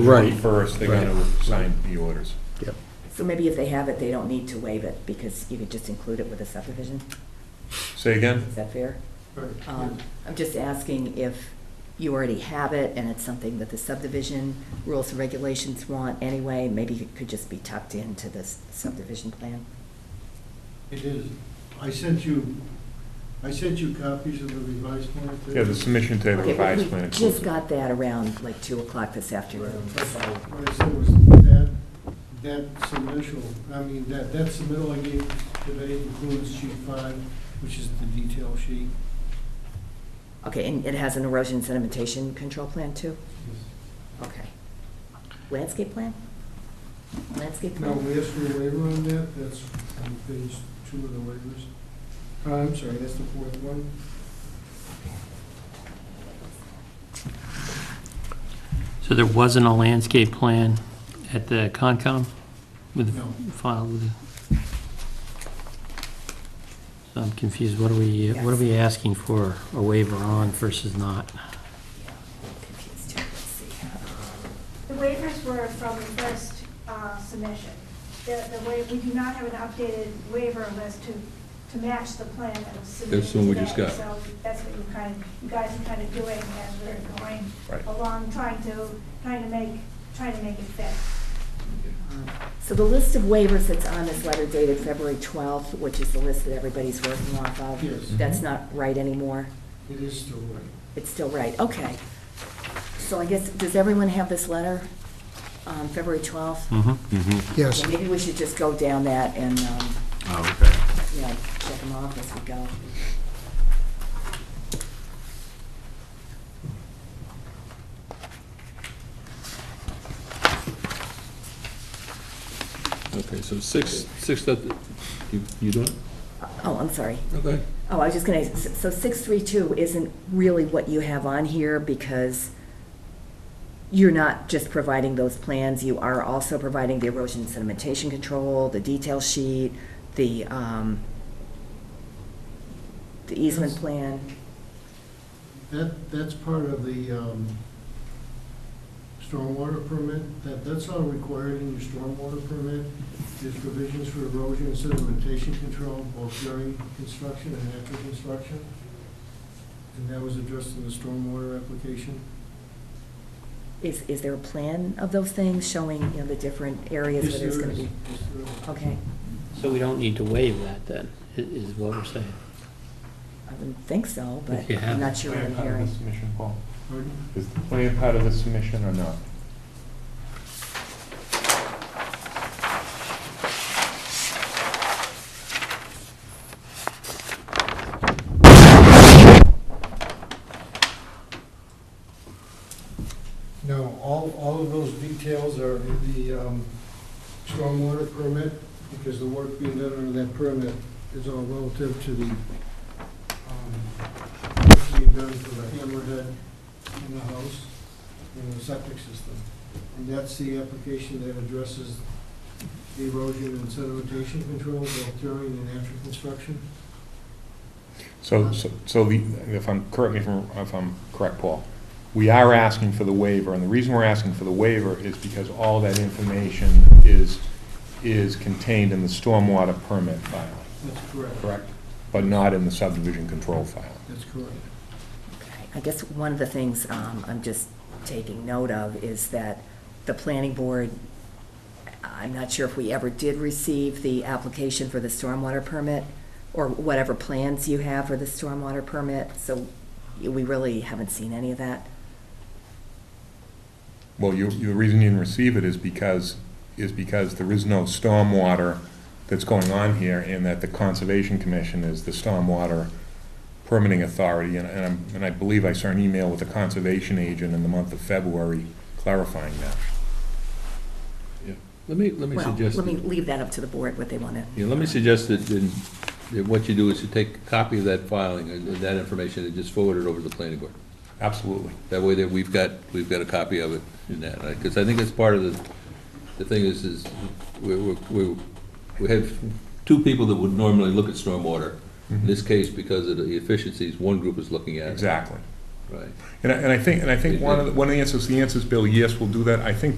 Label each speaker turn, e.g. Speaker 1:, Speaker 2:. Speaker 1: The
Speaker 2: Right.
Speaker 1: 21st, they're going to sign the orders.
Speaker 2: Yep.
Speaker 3: So maybe if they have it, they don't need to waive it, because you could just include it with a subdivision?
Speaker 1: Say again?
Speaker 3: Is that fair? Um, I'm just asking if you already have it, and it's something that the subdivision rules and regulations want anyway, maybe it could just be tucked into this subdivision plan?
Speaker 4: It is. I sent you, I sent you copies of the revised plan. too.
Speaker 1: Yeah, the submission to the
Speaker 3: Okay, but
Speaker 1: revised plan.
Speaker 3: We
Speaker 1: includes
Speaker 3: just
Speaker 1: it.
Speaker 3: got that around like 2 o'clock this afternoon, so,
Speaker 4: What I said was that, that submission, I mean, that, that submittal I gave today includes sheet five, which is the detail sheet.
Speaker 3: okay, and it has an erosion sedimentation control plan too? Okay. Landscape plan? Landscape
Speaker 4: Now,
Speaker 3: plan?
Speaker 4: we asked for a waiver on that, that's on page two of the waivers. Uh, I'm sorry, that's the fourth one.
Speaker 5: So there wasn't a landscape plan at the Concom with,
Speaker 4: No.
Speaker 5: filed with? the- So I'm confused, what are we, what are we asking for a waiver on versus not?
Speaker 3: Confused too. Let's see.
Speaker 6: The waivers were from the first uh, submission. The, the way, we do not have an updated waiver list to, to match the plan that was submitted
Speaker 7: That's the one we just
Speaker 6: today.
Speaker 7: got.
Speaker 6: So that's what you kind of, you guys are kind of doing as we're going
Speaker 1: Right.
Speaker 6: along, trying to, trying to make, trying to make it fit.
Speaker 3: So the list of waivers that's on this letter dated February 12th, which is the list that everybody's working off
Speaker 4: Yes.
Speaker 3: of, that's not right anymore?
Speaker 4: It is still right.
Speaker 3: It's still right, okay. So I guess, does everyone have this letter, um, February
Speaker 5: Mm-hmm.
Speaker 3: 12th?
Speaker 2: Yes.
Speaker 3: Yeah, Maybe we should just go down that and, um,
Speaker 1: Oh,
Speaker 3: you know, check them off as we go.
Speaker 7: Okay, so six, six, that, you, you doing?
Speaker 3: Oh, I'm sorry.
Speaker 7: Okay.
Speaker 3: Oh, I was just gonna, so 632 isn't really what you have on here because you're not just providing those plans, you are also providing the erosion sedimentation control, the detail sheet, the, um, the easement
Speaker 4: Yes.
Speaker 3: plan.
Speaker 4: That, that's part of the um, stormwater permit, that, that's all required in your stormwater permit. There's provisions for erosion and sedimentation control, both during construction and after construction. And that was addressed in the stormwater application.
Speaker 3: Is, is there a plan of those things showing, you know, the different areas
Speaker 4: Yes,
Speaker 3: where there's
Speaker 4: there
Speaker 3: gonna
Speaker 4: is.
Speaker 3: be?
Speaker 4: Yes, there is.
Speaker 3: Okay,
Speaker 5: So we don't need to waive that then, i- is what we're saying.
Speaker 3: I wouldn't think so, but
Speaker 5: If you
Speaker 3: I'm
Speaker 5: have
Speaker 3: not
Speaker 1: okay.
Speaker 3: sure what
Speaker 1: Plan
Speaker 3: I'm
Speaker 1: part of the
Speaker 3: hearing.
Speaker 1: submission, Paul?
Speaker 4: Pardon?
Speaker 1: Is the plan part of the submission or not?
Speaker 4: No, all, all of those details are in the um, stormwater permit, because the work being done under that permit is all relative to the, um, work being done for the hammerhead in the house and the septic system. And that's the application that addresses the erosion and sedimentation control both during and after construction.
Speaker 1: So, so- so the, if I'm, correct me if I'm, if I'm correct, Paul, we are asking for the waiver, and the reason we're asking for the waiver is because all that information is, is contained in the stormwater permit filing,
Speaker 4: That's correct.
Speaker 1: correct? But not in the subdivision control filing.
Speaker 4: That's correct.
Speaker 3: Okay. I guess one of the things um, I'm just taking note of is that the planning board, I'm not sure if we ever did receive the application for the stormwater permit or whatever plans you have for the stormwater permit, so we really haven't seen any of that.
Speaker 1: Well, you, you- the reason you didn't receive it is because, is because there is no stormwater that's going on here, and that the Conservation Commission is the stormwater permitting authority, and, and I'm, and I believe I saw an email with the conservation agent in the month of February clarifying that.
Speaker 7: Let me, let me
Speaker 3: Well,
Speaker 7: suggest,
Speaker 3: let me
Speaker 7: that-
Speaker 3: leave that up to the board, what they want to.
Speaker 7: yeah, let me suggest that, then- that what you do is to take a copy of that filing, and that information, and just forward it over to the planning board.
Speaker 1: Absolutely.
Speaker 7: That way that we've got, we've got a copy of it in that, because I think that's part of the, the thing is, is we, we- we, we have two people that would normally look at stormwater. In this case, because of the efficiencies, one group is looking at it.
Speaker 1: Mm-hmm. Exactly.
Speaker 7: right.
Speaker 1: And I, and I think, and I think one of, the- one of the answers, the answer is, Bill, yes, we'll do that. I think